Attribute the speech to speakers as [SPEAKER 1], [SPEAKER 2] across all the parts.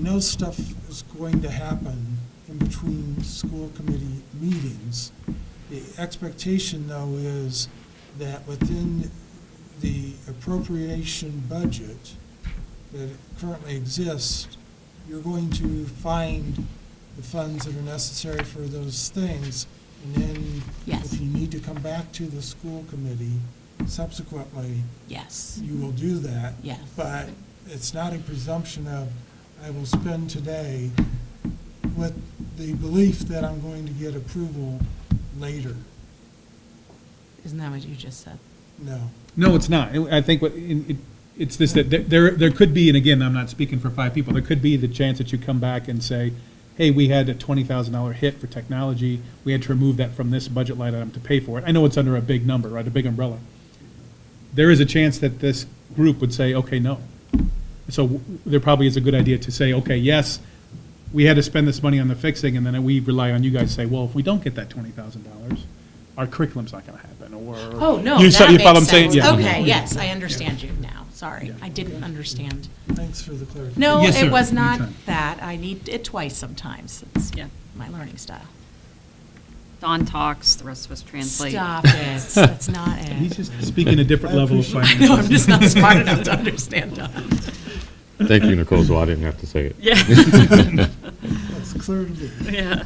[SPEAKER 1] I know stuff is going to happen in between school committee meetings. The expectation, though, is that within the appropriation budget that currently exists, you're going to find the funds that are necessary for those things. And then
[SPEAKER 2] Yes.
[SPEAKER 1] if you need to come back to the school committee subsequently,
[SPEAKER 2] Yes,
[SPEAKER 1] you will do that.
[SPEAKER 2] yes.
[SPEAKER 1] But it's not a presumption of, I will spend today with the belief that I'm going to get approval later.
[SPEAKER 2] Isn't that what you just said?
[SPEAKER 1] No.
[SPEAKER 3] No, it's not. I I think what, in- it- it's this, that there- there, there could be, and again, I'm not speaking for five people, there could be the chance that you come back and say, hey, we had a twenty thousand dollar hit for technology, we had to remove that from this budget line item to pay for it. I know it's under a big number, right, a big umbrella. There is a chance that this group would say, okay, no. So w- there probably is a good idea to say, okay, yes, we had to spend this money on the fixing, and then we rely on you guys to say, well, if we don't get that twenty thousand dollars, our curriculum's not gonna happen, or.
[SPEAKER 2] Oh, no,
[SPEAKER 3] You saw-
[SPEAKER 2] that
[SPEAKER 3] you follow
[SPEAKER 2] makes
[SPEAKER 3] what I'm saying?
[SPEAKER 2] sense.
[SPEAKER 3] Yeah.
[SPEAKER 2] Okay, yes, I understand you now. Sorry,
[SPEAKER 3] Yeah.
[SPEAKER 2] I didn't understand.
[SPEAKER 1] Thanks for the clarification.
[SPEAKER 2] No,
[SPEAKER 3] Yes,
[SPEAKER 2] it
[SPEAKER 3] sir.
[SPEAKER 2] was not
[SPEAKER 3] Anytime.
[SPEAKER 2] that. I need it twice sometimes. It's
[SPEAKER 4] Yeah.
[SPEAKER 2] my learning style.
[SPEAKER 4] Don talks, the rest of us translate.
[SPEAKER 2] Stop it. That's not
[SPEAKER 3] He's
[SPEAKER 2] it.
[SPEAKER 3] just speaking a different
[SPEAKER 1] I
[SPEAKER 3] level of
[SPEAKER 1] appreciate-
[SPEAKER 2] I
[SPEAKER 3] finance.
[SPEAKER 2] know, I'm just not smart enough to understand Don.
[SPEAKER 5] Thank you, Nicole, so I didn't have to say it.
[SPEAKER 4] Yeah.
[SPEAKER 1] That's clear to me.
[SPEAKER 4] Yeah,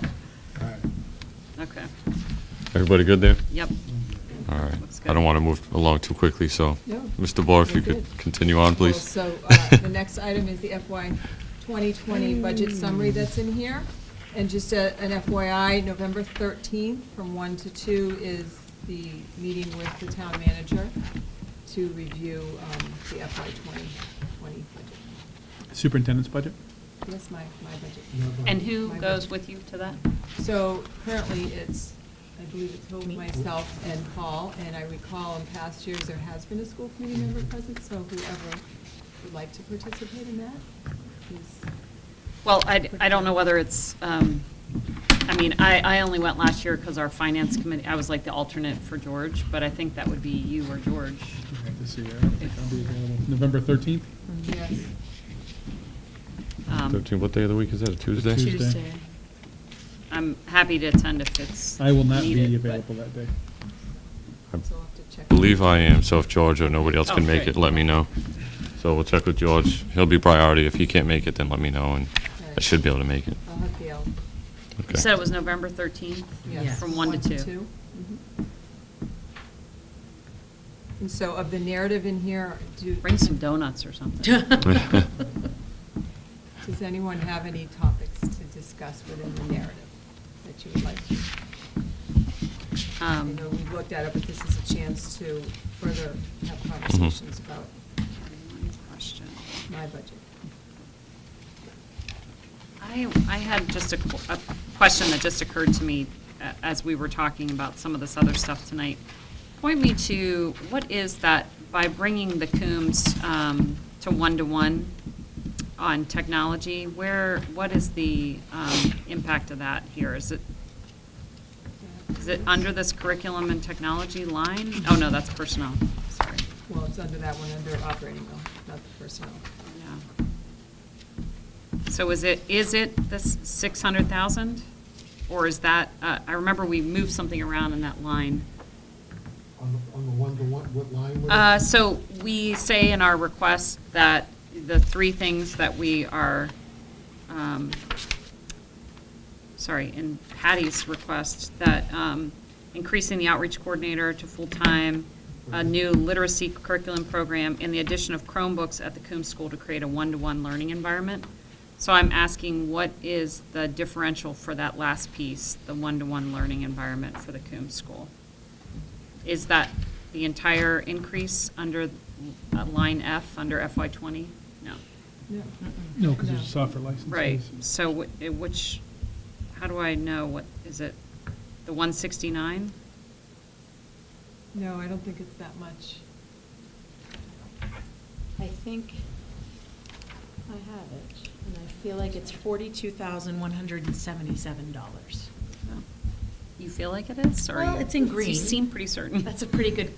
[SPEAKER 1] All right.
[SPEAKER 4] okay,
[SPEAKER 5] Everybody good there?
[SPEAKER 4] yep.
[SPEAKER 5] All right.
[SPEAKER 4] Looks good.
[SPEAKER 5] I don't want to move along too quickly, so,
[SPEAKER 6] No.
[SPEAKER 5] Mr. Bohr, if
[SPEAKER 6] We're
[SPEAKER 5] you could
[SPEAKER 6] good.
[SPEAKER 5] continue on,
[SPEAKER 6] Cool.
[SPEAKER 5] please.
[SPEAKER 6] So uh, the next item is the FY 2020 budget summary that's in here. And just a- an FYI, November 13th, from 1 to 2, is the meeting with the town manager to review um, the FY 2020 budget.
[SPEAKER 3] Superintendent's budget?
[SPEAKER 6] Yes, my, my budget.
[SPEAKER 1] No, but-
[SPEAKER 4] And who goes with you to that?
[SPEAKER 6] So currently, it's, I believe it's Hope, myself, and Paul, and I recall in past years, there has been a school committee member present, so whoever would like to participate in that is
[SPEAKER 4] Well, I, I don't know whether it's, um, I mean, I, I only went last year because our finance committee, I was like the alternate for George, but I think that would be you or George.
[SPEAKER 3] November 13th?
[SPEAKER 6] Yes,
[SPEAKER 4] Um,
[SPEAKER 5] 13, what day of the week is that, a Tuesday?
[SPEAKER 3] Tuesday.
[SPEAKER 4] I'm happy to attend if it's
[SPEAKER 3] I will not be
[SPEAKER 4] needed, but-
[SPEAKER 3] available that day.
[SPEAKER 5] I
[SPEAKER 6] so I'll have to check.
[SPEAKER 5] believe I am, so if George or nobody else can
[SPEAKER 4] Oh,
[SPEAKER 5] make
[SPEAKER 4] great.
[SPEAKER 5] it, let me know. So we'll check with George. He'll be priority. If he can't make it, then let me know, and I should be able to make it.
[SPEAKER 6] I'll have Gail.
[SPEAKER 4] You
[SPEAKER 5] Okay.
[SPEAKER 4] said it was November 13th?
[SPEAKER 6] Yes.
[SPEAKER 4] From 1 to 2?
[SPEAKER 6] Mhm. And so of the narrative in here, do.
[SPEAKER 4] Bring some donuts or something. Um,
[SPEAKER 6] Does anyone have any topics to discuss within the narrative that you would like? to- I
[SPEAKER 4] Um,
[SPEAKER 6] know we've looked at it, but this is a chance to further have conversations about
[SPEAKER 4] Question.
[SPEAKER 6] my budget.
[SPEAKER 4] I, I had just a, qu- a question that just occurred to me uh, as we were talking about some of this other stuff tonight. Point me to, what is that, by bringing the Coombs um, to one-to-one on technology, where, what is the um, impact of that here? Is it, is it under this curriculum and technology line? Oh, no, that's personnel, sorry.
[SPEAKER 6] Well, it's under that one, under operating though, not the personnel.
[SPEAKER 4] Yeah. So is it, is it this 600,000? Or is that, uh, I remember we moved something around in that line.
[SPEAKER 7] On the, on the one-to-one, what line would it?
[SPEAKER 4] Uh, So we say in our request that the three things that we are, um, sorry, in Patty's request, that um, increasing the outreach coordinator to full-time, a new literacy curriculum program, and the addition of Chromebooks at the Coombs School to create a one-to-one learning environment. So I'm asking, what is the differential for that last piece, the one-to-one learning environment for the Coombs School? Is that the entire increase under uh, line F, under FY '20? No.
[SPEAKER 6] No.
[SPEAKER 3] No, because there's
[SPEAKER 6] No.
[SPEAKER 3] a software license.
[SPEAKER 4] Right, so wh- eh, which, how do I know what, is it the 169?
[SPEAKER 6] No, I don't think it's that much.
[SPEAKER 8] I think I have it, and I feel like it's forty-two thousand one hundred and seventy-seven dollars.
[SPEAKER 4] No. You feel like it is, or?
[SPEAKER 8] Well,
[SPEAKER 4] you-
[SPEAKER 8] it's in green.
[SPEAKER 4] You seem pretty certain.
[SPEAKER 8] That's a pretty good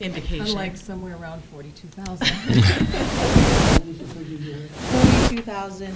[SPEAKER 8] indication.
[SPEAKER 6] Unlike somewhere around forty-two thousand.
[SPEAKER 8] Forty-two thousand